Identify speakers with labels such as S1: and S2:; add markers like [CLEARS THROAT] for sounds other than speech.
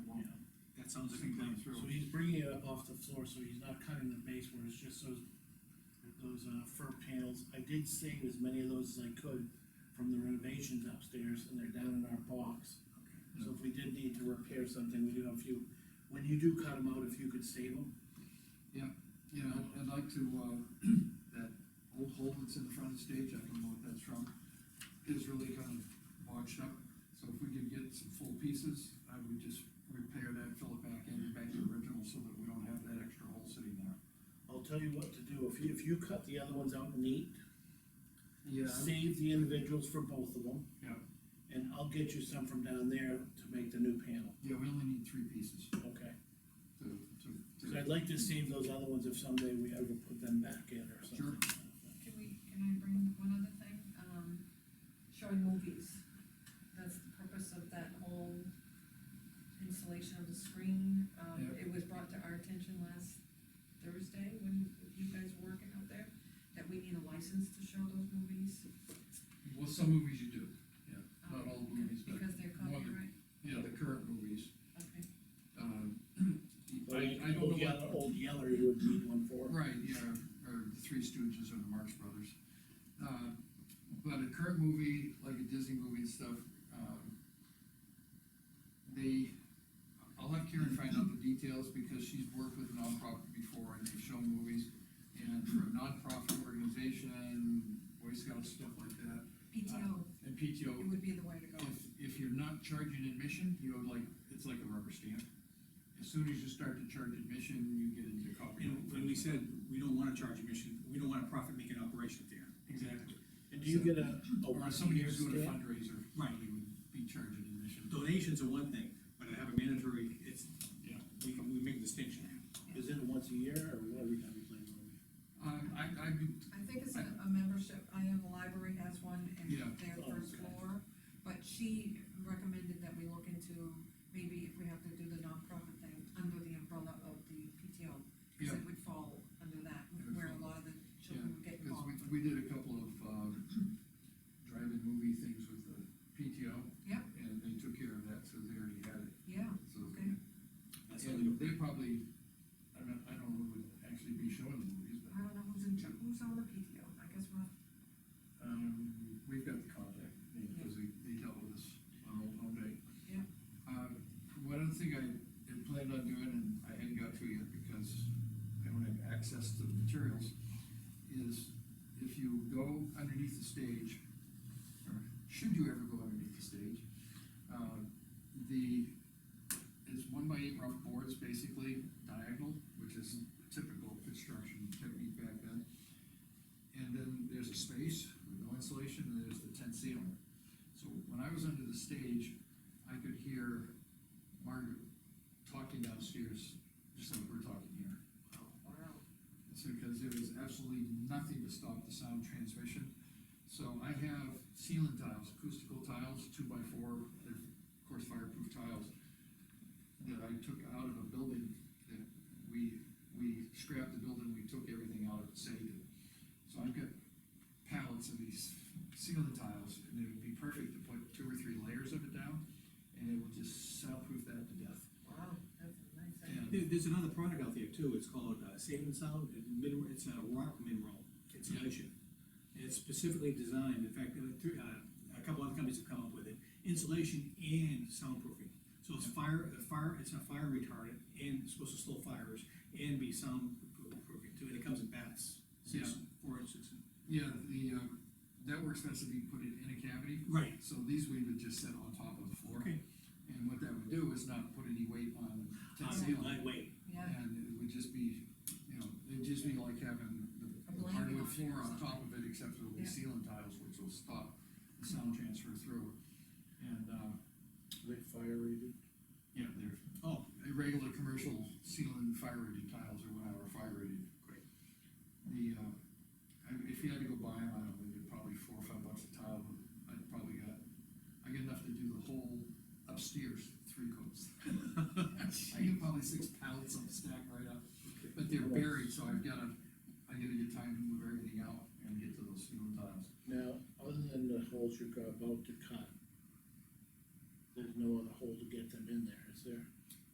S1: sounds like it came through.
S2: So he's bringing it up off the floor, so he's not cutting the base where it's just those, those, uh, fir panels. I did save as many of those as I could from the renovations upstairs, and they're down in our box. So if we did need to repair something, we do have a few, when you do cut them out, if you could save them,
S1: Yeah, I'd- I'd like to, uh, [CLEARS THROAT] that old hole that's in the front of the stage, I don't know what that's from, is really kind of washed up. So if we could get some full pieces, I would just repair that, fill it back in, back to the original, so that we don't have that extra hole sitting there.
S2: I'll tell you what to do, if you, if you cut the other ones out neat,
S1: Yeah.
S2: save the individuals for both of them.
S1: Yeah.
S2: And I'll get you some from down there to make the new panel,
S1: Yeah, we only need three pieces to,
S2: okay?
S1: to.
S2: Cause I'd like to save those other ones if someday we ever put them back in or something.
S1: Sure.
S3: Can we, can I bring one other thing, um, showing movies, that's the purpose of that whole installation of the screen, um,
S1: Yeah.
S3: it was brought to our attention last Thursday, when you guys were working out there, that we need a license to show those movies.
S1: Well, some movies you do, Not
S3: um,
S1: all movies, but
S3: Because they're
S1: more than-
S3: copyright,
S1: yeah, the current movies.
S3: okay,
S1: [CLEARS THROAT] Um, I,
S2: Like
S1: I don't know
S2: Old
S1: what
S2: Yeller, Old Yeller, you would need one for.
S1: Right, yeah, or the Three Stooges or the Marx Brothers. Uh, But a current movie, like a Disney movie and stuff, um, they, I'll have Karen find out the details, because she's worked with nonprofit before, and they've shown movies. And for a nonprofit organization, Boy Scouts, stuff like that, Uh,
S3: PTO,
S1: and PTO,
S3: it would be the way to go.
S1: if, if you're not charging admission, you have like, it's like a rubber stamp. As soon as you start to charge admission, you get into copyright.
S4: And when we said, we don't wanna charge admission, we don't want a profit-making operation there.
S1: Exactly.
S2: And do you get a, a
S1: Or if somebody who's doing a
S2: stamp?
S1: fundraiser,
S4: Right.
S1: they would be charging admission.
S4: Donations are one thing, but to have a mandatory, it's,
S1: Yeah.
S4: we, we make a distinction.
S2: Is it once a year or what every time you play the movie?
S1: Um, I, I,
S3: I think it's a, a membership, I know the library has one in
S1: Yeah.
S3: their
S2: Oh,
S3: first
S2: okay.
S3: floor, but she recommended that we look into, maybe if we have to do the nonprofit thing, under the umbrella of the PTO. Cause
S1: Yeah.
S3: it would fall under that,
S1: It would
S3: where a
S1: fall.
S3: lot of the children would get
S1: because
S3: involved.
S1: we, we did a couple of, um, drive-in movie things with the PTO.
S3: Yeah.
S1: And they took care of that, so they already had it,
S3: Yeah,
S1: so.
S3: Okay.
S4: That's how they
S1: And
S4: do
S1: they probably, I don't, I don't know who would actually be showing the movies,
S3: I
S1: but,
S3: don't know who's in, char- who's on the PTO, I guess we'll,
S1: um, we've got the contact, because they, they dealt with us on Old Home Day.
S3: Yeah.
S1: Um, one other thing I had planned on doing, and I hadn't got to yet because I don't have access to the materials, is if you go underneath the stage, or should you ever go underneath the stage, uh, the, it's one by eight rough boards, basically diagonal, which is typical construction technique back then. And then there's a space with no insulation, and there's the tent ceiling. So when I was under the stage, I could hear Margaret talking downstairs, just like we're talking here.
S3: wow,
S1: It's because there was absolutely nothing to stop the sound transmission. So I have ceiling tiles, acoustical tiles, two by four, they're of course fireproof tiles, that I took out of a building that we, we scrapped the building, we took everything out of it, saved it. So I've got pallets of these ceiling tiles, and it would be perfect to put two or three layers of it down, and it would just soundproof that to death.
S3: wow, that's a nice idea.
S1: And
S4: it. There, there's another product out there too, it's called, uh, Save and Sound, it min- it's a rock mineral insulation. And it's specifically designed, in fact, uh, three, uh, a couple other companies have come up with it, insulation and soundproofing. So it's fire, a fire, it's a fire retardant, and it's supposed to slow fires, and be soundproofing too, and it comes in bats. Six, four, and six.
S1: Yeah, the, um, that works best if you put it in a cavity,
S4: Right.
S1: so these we would just set on top of the floor.
S4: Okay.
S1: And what that would do is not put any weight on the
S4: Uh,
S1: ceiling,
S4: Lightweight.
S3: Yeah,
S1: and it would just be, you know, it'd just be like having
S3: A
S1: the
S3: blanket on
S1: hardwood
S3: it or
S1: floor on
S3: something.
S1: top of it, except it'll be
S3: Yeah.
S1: ceiling tiles, which will stop the sound transfer through. And, uh,
S2: Like fire rated?
S1: yeah, they're, oh, a regular commercial ceiling fire rated tiles or whatever, fire rated.
S4: Great.
S1: The, uh, I- if you had to go buy them, I don't know, they're probably four or five bucks a tile, but I probably got, I get enough to do the whole upstairs, three coats. [LAUGHS] I get probably six pallets on the stack right up, but they're buried, so I've gotta, I gotta get time to move everything out and get to those ceiling tiles.
S2: Now, other than the holes you're about to cut, there's no other hole to get them in there, is there?